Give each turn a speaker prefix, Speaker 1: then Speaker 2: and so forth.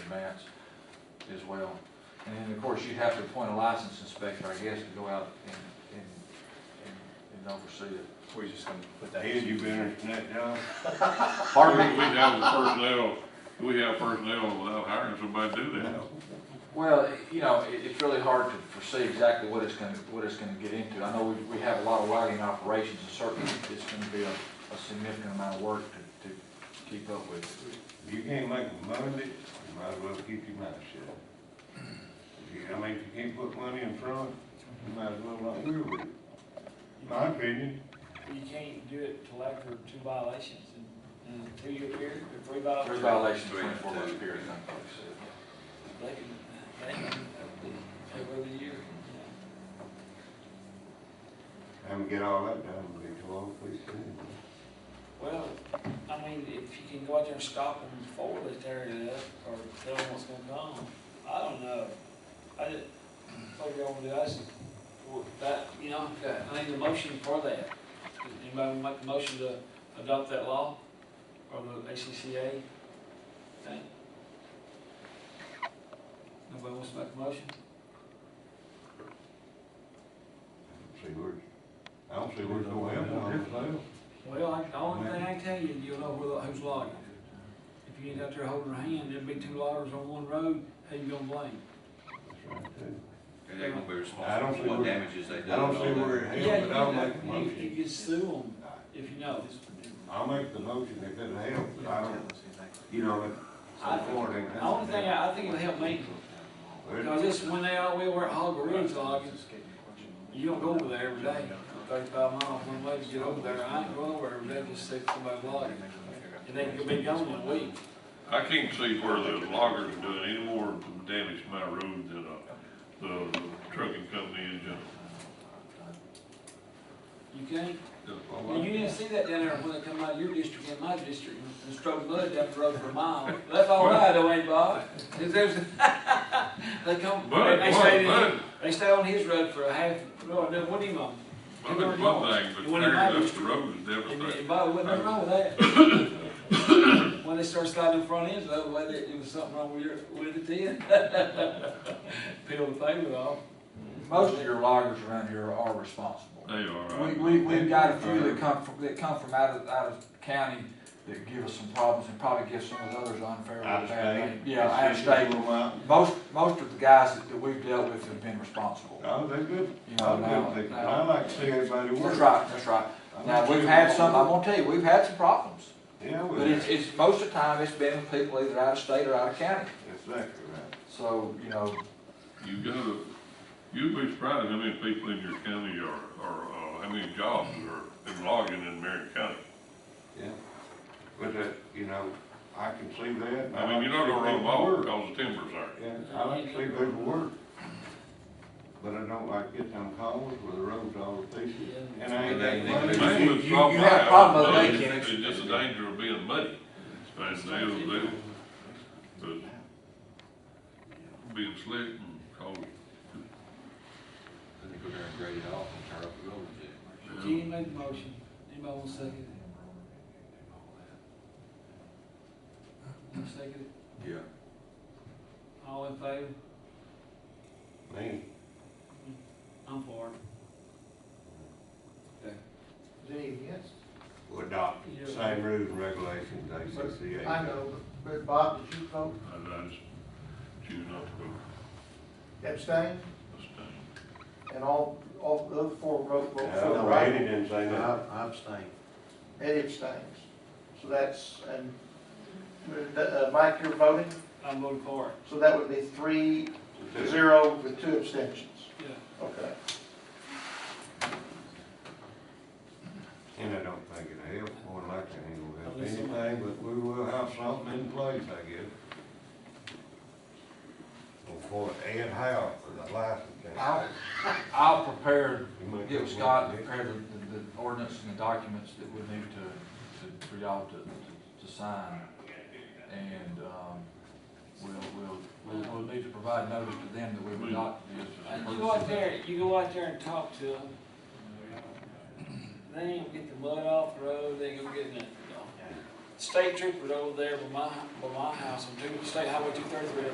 Speaker 1: mats as well. And then, of course, you'd have to appoint a license inspector, I guess, to go out and, and, and- and oversee it.
Speaker 2: We're just gonna put that.
Speaker 3: Ed, you been there from that job?
Speaker 1: Pardon me?
Speaker 4: We have the personnel, we have personnel without hiring somebody to do that.
Speaker 1: Well, you know, it, it's really hard to foresee exactly what it's gonna, what it's gonna get into. I know we, we have a lot of logging operations, and certainly it's gonna be a, a significant amount of work to, to keep up with.
Speaker 3: If you can't make a money, you might as well keep your mouth shut. If you- I mean, if you can't put money in front, you might as well not do it. My opinion,
Speaker 5: You can't do it till after two violations in in a two-year period, or
Speaker 1: Three
Speaker 5: three violations.
Speaker 1: violations, twenty-four month period, I think they said.
Speaker 5: They can, they can, every other year.
Speaker 3: I'm gonna get all that done, but it's all please.
Speaker 5: Well, I mean, if you can go out there and stop them before they tear it up, or tell them what's gonna come, I don't know. I didn't, what y'all wanna do, I just, well, that, you know, I need a motion for that. Does Anybody wanna make a motion to adopt that law, or the ACCA thing? Nobody wants to make a motion?
Speaker 3: See where, I don't see where no help on this deal.
Speaker 5: Well, I- the only thing I can tell you, you'll know where the- who's logging. If you ain't out there holding her hand, there'd be two loggers on one road, who you gonna blame?
Speaker 3: That's right, too.
Speaker 2: And they're gonna be
Speaker 3: I don't
Speaker 2: responsible
Speaker 3: see
Speaker 2: for what
Speaker 3: where-
Speaker 2: damages they do.
Speaker 3: I don't see where it
Speaker 5: Yeah,
Speaker 3: helps,
Speaker 5: you
Speaker 3: but I'll make a
Speaker 5: know, you, you
Speaker 3: motion.
Speaker 5: can sue them if you know.
Speaker 3: I'll make the motion if it helps, but I don't, you know, if
Speaker 5: I-
Speaker 3: support ain't.
Speaker 5: The only thing, I I think it'll help me, because this, when they all, we were at Hog Ridge logging, you don't go over there every day. Thirty-five miles one way to get over there, I ain't going over every day, just see somebody logging. And they could be gone in a week.
Speaker 4: I can't see where the loggers are doing any more damage to my road than, uh, the trucking company in general.
Speaker 5: You can't,
Speaker 3: Well,
Speaker 5: Well, you didn't see that down there when they come out of your district and my district and strode mud down the road for a mile. That's all right, though, ain't Bob? 'Cause there's, they come,
Speaker 4: But,
Speaker 5: they stayed,
Speaker 4: but,
Speaker 5: in-
Speaker 4: but,
Speaker 5: they stayed on his road for a half, no, no, what do you mean?
Speaker 4: but there's one thing,
Speaker 5: You
Speaker 4: but
Speaker 5: wouldn't
Speaker 4: tearing up
Speaker 5: imagine.
Speaker 4: the road is
Speaker 5: And,
Speaker 4: devastating.
Speaker 5: and Bob, wasn't nothing wrong with that. When they start sliding the front ends, though, whether it was something wrong with your, with it then. Peel the pavement off.
Speaker 1: Most of your loggers around here are responsible.
Speaker 4: They are, uh,
Speaker 1: We,
Speaker 4: right?
Speaker 1: we, we've got a few that come from, that come from out of, out of county that give us some problems and probably give some of the others unfair. or
Speaker 3: Out of
Speaker 1: bad
Speaker 3: state.
Speaker 1: name. Yeah, out of state. Most, most of the guys that, that we've dealt with have been responsible.
Speaker 3: Oh, they're good.
Speaker 1: You know,
Speaker 3: I'm
Speaker 1: now,
Speaker 3: good. I
Speaker 1: now-
Speaker 3: like to see everybody work.
Speaker 1: That's right, that's right.
Speaker 3: I'm
Speaker 1: Now,
Speaker 3: not
Speaker 1: we've
Speaker 3: sure.
Speaker 1: had some, I'm gonna tell you, we've had some problems.
Speaker 3: Yeah, we
Speaker 1: But
Speaker 3: have.
Speaker 1: it's, it's, most of the time, it's been with people either out of state or out of county.
Speaker 3: Exactly right.
Speaker 1: So, you know,
Speaker 4: You gotta, you'd be surprised how many people in your county are, are, uh, how many jobs are in logging in Marion County.
Speaker 3: Yeah. But that, you know, I can see that. and
Speaker 4: I mean, you're not
Speaker 3: like to
Speaker 4: gonna
Speaker 3: see
Speaker 4: run them all
Speaker 3: people work.
Speaker 4: because the timbers aren't.
Speaker 3: Yeah, I like to see people work. But I don't like getting them calls where the road's all pieces. And I ain't
Speaker 2: They-
Speaker 3: that
Speaker 2: they-
Speaker 3: money.
Speaker 4: Man,
Speaker 1: you-
Speaker 4: it's
Speaker 1: you-
Speaker 4: not
Speaker 1: you
Speaker 4: my
Speaker 1: have a problem
Speaker 4: idea.
Speaker 1: with that,
Speaker 4: It's
Speaker 1: Kenny.
Speaker 4: just a danger of being muddy, and they'll, they'll, but being slick and cold.
Speaker 2: Then they go there and grade it off and tear up the road and do
Speaker 5: Kenny made the motion. Anybody want to second it? Want to second it?
Speaker 2: it. Yeah.
Speaker 5: All in favor?
Speaker 3: Me,
Speaker 5: I'm for it.
Speaker 6: Gee, yes.
Speaker 3: would adopt the same rules and regulations ACCA.
Speaker 6: I know, but Bob, did you vote
Speaker 4: I, I just choose not to go
Speaker 6: abstain?
Speaker 4: this time.
Speaker 6: And all, all the other four vote, vote for the
Speaker 3: No, Randy
Speaker 6: right?
Speaker 3: didn't say nothing.
Speaker 7: I abstain.
Speaker 6: Eddie abstains. So that's, and, uh, Mike, you're voting,
Speaker 5: I'm voting for it.
Speaker 6: so that would be three, zero with two abstentions.
Speaker 5: Yeah.
Speaker 6: Okay.
Speaker 3: And I don't think it helps, more than likely it ain't gonna help
Speaker 5: Unless somebody-
Speaker 3: anything, but we will have something in place, I guess. Before Ed Howe for the license.
Speaker 1: I'll, I'll prepare,
Speaker 3: You might
Speaker 1: get
Speaker 3: have
Speaker 1: with Scott,
Speaker 3: one.
Speaker 1: and prepare the, the the ordinance and the documents that we need to, to, for y'all to, to, to sign. And, um, we'll, we'll, we'll, we'll need to provide notice to them that we've adopted this. as a
Speaker 5: You go out
Speaker 1: courtesy.
Speaker 5: there, you go out there and talk to them. They ain't gonna get the mud off the road, they ain't gonna get nothing. state troopers over there by my, by my house on two, State Highway two thirty-three